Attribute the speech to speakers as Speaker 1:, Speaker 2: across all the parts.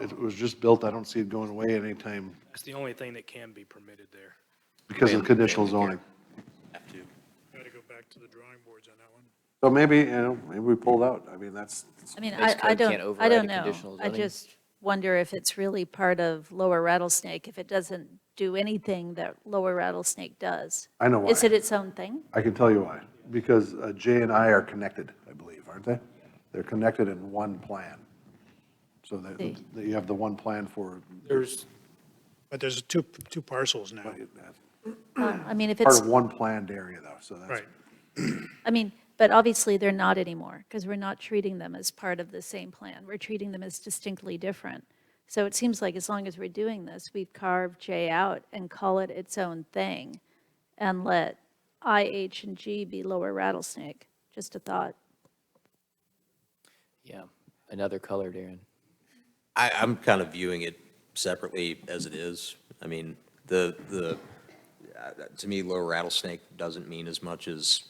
Speaker 1: It was just built, I don't see it going away at any time
Speaker 2: That's the only thing that can be permitted there.
Speaker 1: because of conditional zoning.
Speaker 3: Have to.
Speaker 2: Got to go back to the drawing boards on that one.
Speaker 1: So maybe, you know, maybe we pulled out. I mean, that's,
Speaker 4: I mean,
Speaker 3: Base
Speaker 4: I, I
Speaker 3: code can't
Speaker 4: don't, I
Speaker 3: override a
Speaker 4: don't know.
Speaker 3: conditional
Speaker 4: I
Speaker 3: zoning.
Speaker 4: just wonder if it's really part of Lower Rattlesnake, if it doesn't do anything that Lower Rattlesnake does.
Speaker 1: I know why.
Speaker 4: Is it its own thing?
Speaker 1: I can tell you why. Because uh, J and I are connected, I believe, aren't they? They're connected in one plan. So that,
Speaker 4: See.
Speaker 1: that you have the one plan for,
Speaker 2: There's,
Speaker 5: But there's two, two parcels now.
Speaker 4: Uh, I mean, if
Speaker 1: part
Speaker 4: it's,
Speaker 1: of one planned area though, so that's.
Speaker 5: Right.
Speaker 4: I mean, but obviously they're not anymore because we're not treating them as part of the same plan. We're treating them as distinctly different. So it seems like as long as we're doing this, we carve J out and call it its own thing and let I, H, and G be Lower Rattlesnake. Just a thought.
Speaker 3: Yeah, another color, Darren.
Speaker 6: I, I'm kind of viewing it separately as it is. I mean, the, the, uh, to me, low rattlesnake doesn't mean as much as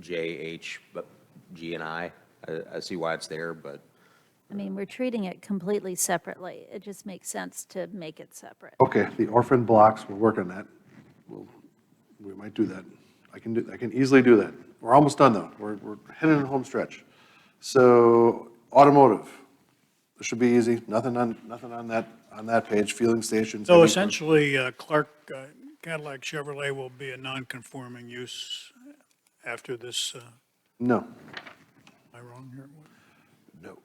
Speaker 6: J, H, but G and I. I, I see why it's there, but
Speaker 4: I mean, we're treating it completely separately. It just makes sense to make it separate.
Speaker 1: Okay, the orphan blocks, we'll work on that. We'll, we might do that. I can do, I can easily do that. We're almost done though. We're, we're headed in home stretch. So automotive, this should be easy. Nothing on, nothing on that, on that page. Fueling stations.
Speaker 5: So
Speaker 1: heavy-
Speaker 5: essentially, uh, Clark uh, Cadillac Chevrolet will be a non-conforming use after this, uh, am
Speaker 1: No,
Speaker 5: I wrong here?
Speaker 1: no.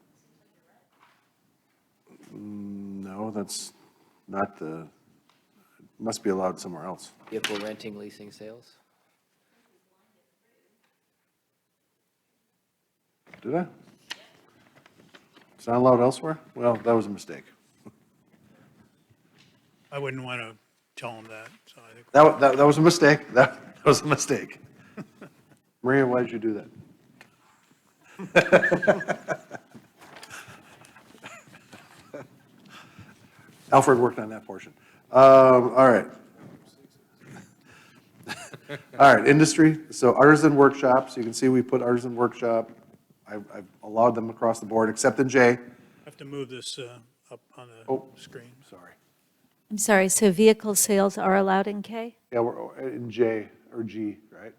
Speaker 1: Mm, No, that's not the, must be allowed somewhere else.
Speaker 3: Vehicle renting, leasing, sales?
Speaker 1: Did I? It's not allowed elsewhere? Well, that was a mistake.
Speaker 5: I wouldn't want to tell them that, so I think,
Speaker 1: That, wa- that, that was a mistake. That, that was a mistake. Maria, why did you do that? Alfred worked on that portion. Um, all right. All right, industry. So artisan workshops, you can see we put artisan workshop. I've, I've allowed them across the board, except in J.
Speaker 5: I have to move this uh, up on
Speaker 1: Oh.
Speaker 5: the screen.
Speaker 1: Sorry.
Speaker 4: I'm sorry, so vehicle sales are allowed in K?
Speaker 1: Yeah, we're uh, in J or G, right?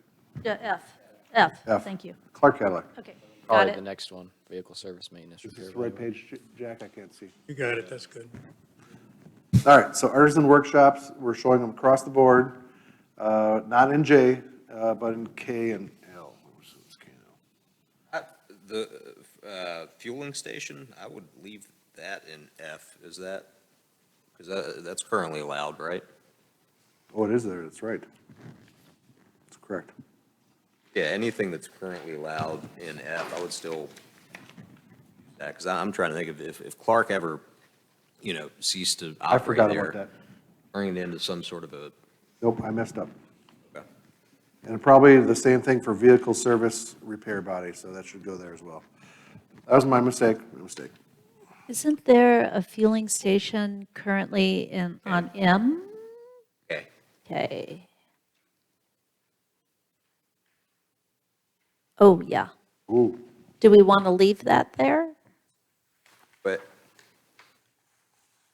Speaker 4: Yeah, F, F,
Speaker 1: F.
Speaker 4: thank you.
Speaker 1: Clark Cadillac.
Speaker 4: Okay, got
Speaker 3: Probably the
Speaker 4: it.
Speaker 3: next one, vehicle service maintenance.
Speaker 1: Is
Speaker 3: repair,
Speaker 1: this the right
Speaker 3: whatever.
Speaker 1: page, J- Jack? I can't see.
Speaker 5: You got it, that's good.
Speaker 1: All right, so artisan workshops, we're showing them across the board, uh, not in J, uh, but in K and L. Which is K and L.
Speaker 6: Uh, the, uh, fueling station, I would leave that in F. Is that, because that, that's currently allowed, right?
Speaker 1: Oh, it is there, that's right. That's correct.
Speaker 6: Yeah, anything that's currently allowed in F, I would still, because I'm trying to think of if, if Clark ever, you know, ceased to
Speaker 1: I
Speaker 6: operate there.
Speaker 1: forgot about that.
Speaker 6: Bringing it into some sort of a,
Speaker 1: Nope, I messed up. And probably the same thing for vehicle service repair body, so that should go there as well. That was my mistake, my mistake.
Speaker 4: Isn't there a fueling station currently in, on M?
Speaker 6: okay,
Speaker 4: Okay. Oh, yeah.
Speaker 1: Ooh,
Speaker 4: Do we want to leave that there?
Speaker 6: but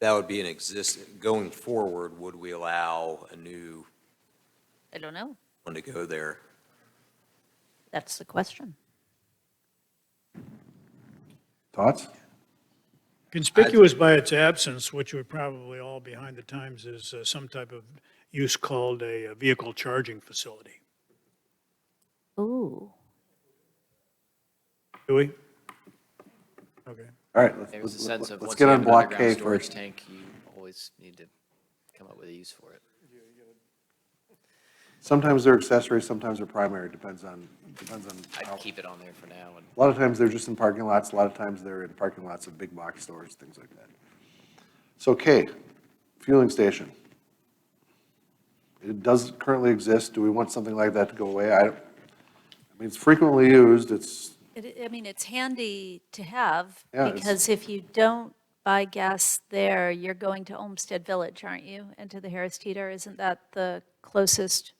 Speaker 6: that would be an exist, going forward, would we allow a new
Speaker 4: I don't know.
Speaker 6: one to go there?
Speaker 4: That's the question.
Speaker 1: thoughts?
Speaker 5: Conspicuous by its absence, which we're probably all behind the times, is uh, some type of use called a uh, vehicle charging facility.
Speaker 4: Ooh,
Speaker 5: Do we? Okay.
Speaker 1: All right, let's-
Speaker 3: There was a sense
Speaker 1: let's,
Speaker 3: of
Speaker 1: let's
Speaker 3: once
Speaker 1: get
Speaker 3: you have
Speaker 1: on
Speaker 3: an
Speaker 1: block K
Speaker 3: underground storage
Speaker 1: first.
Speaker 3: tank, you always need to come up with a use for it.
Speaker 1: Sometimes they're accessory, sometimes they're primary, depends on, depends on how.
Speaker 3: I'd keep it on there for now and
Speaker 1: A lot of times they're just in parking lots, a lot of times they're in parking lots of big box stores, things like that. So K, fueling station. It does currently exist, do we want something like that to go away? I, don't- I mean, it's frequently used, it's,
Speaker 4: It, I mean, it's handy to have,
Speaker 1: Yeah, it's-
Speaker 4: because if you don't buy gas there, you're going to Olmsted Village, aren't you? And to the Harris Teeter, isn't that the closest?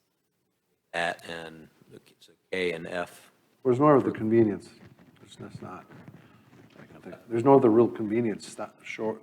Speaker 6: At and, so K and F.
Speaker 1: there's more of the convenience, there's just not. There's no other real convenience sto- shor-